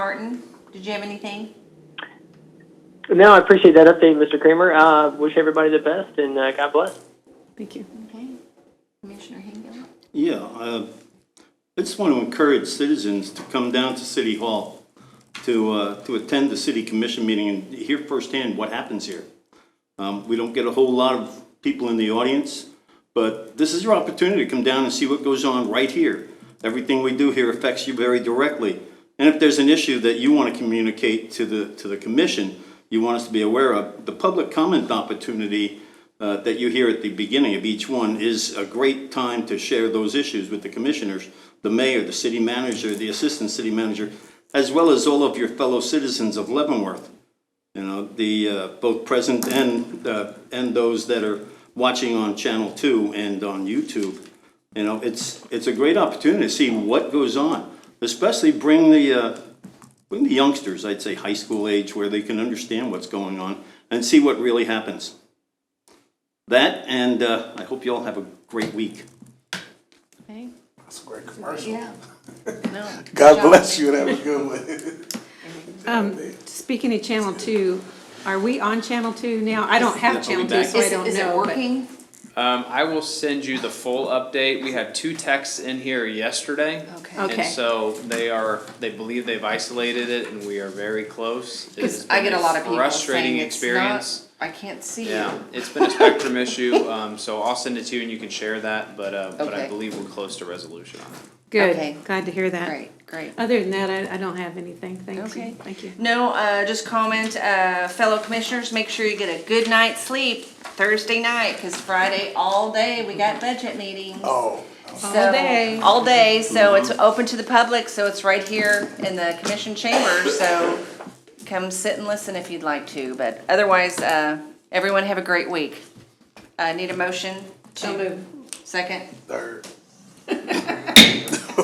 Martin, did you have anything? No, I appreciate that update, Mr. Kramer. Uh, wish everybody the best and uh, God bless. Thank you. Okay. Commissioner Hingle? Yeah, uh, I just want to encourage citizens to come down to City Hall to, uh, to attend the city commission meeting and hear firsthand what happens here. Um, We don't get a whole lot of people in the audience, but this is your opportunity to come down and see what goes on right here. Everything we do here affects you very directly. And if there's an issue that you want to communicate to the, to the commission, you want us to be aware of, the public comment opportunity uh, that you hear at the beginning of each one is a great time to share those issues with the commissioners, the mayor, the city manager, the assistant city manager, as well as all of your fellow citizens of Leavenworth you know, the, uh, both present and, uh, and those that are watching on Channel 2 and on YouTube. You know, it's, it's a great opportunity to see what goes on, especially bring the, uh, bring the youngsters, I'd say high school age, where they can understand what's going on and see what really happens. That, and uh, I hope you all have a great week. Okay. That's a great commercial. Yeah. No. God bless you, that was a good one. Speaking of Channel Two, are we on Channel Two now? I don't have Yes, Channel we'll be back. Two, so I Is, don't know. is it but- working? Um, I will send you the full update. We had two texts in here yesterday. Okay. Okay. And so they are, they believe they've isolated it and we are very close. It has I get been a lot of people frustrating saying it's not, experience. I can't see Yeah, it. it's been a spectrum issue, um, so I'll send it to you and you can share that, but, uh, but Okay. I believe we're close to resolution on it. Okay. Good, glad to hear that. Great, great. Other than that, I, I don't have anything, thank you, Okay. thank you. No, uh, just comment, uh, fellow commissioners, make sure you get a good night's sleep Thursday night, cause Friday all day, we got budget meetings. Oh, All day. All day, so it's open to the public, so it's right here in the commission chamber, so come sit and listen if you'd like to, but otherwise, uh, everyone have a great week. Uh, need a motion? to- So moved. Second, third.